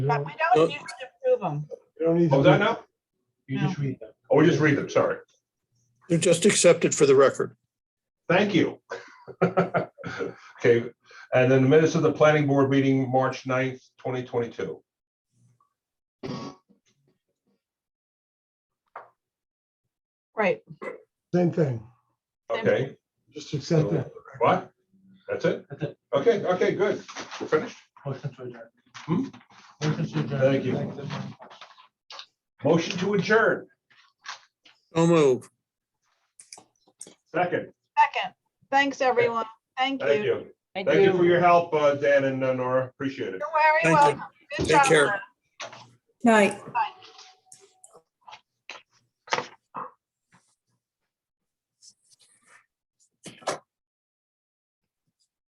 But we don't need to approve them. You don't need to Hold that now? You just read them. Oh, we just read them, sorry. They're just accepted for the record. Thank you. Okay, and then the minutes of the planning board meeting, March 9th, twenty twenty-two. Right. Same thing, Okay, just accept that. what? That's it? That's it. Okay, okay, good. We're finished. Motion to adjourn. Hmm? Motion to adjourn. Thank you. Thanks. Motion to adjourn. So move. Second, Second. Thanks, everyone. Thank thank you. you. Thank you for your help, uh, Dan and uh, Nora. Appreciate it. You're very Thank you. welcome. Good Take job, care. Lynn. Night. Bye.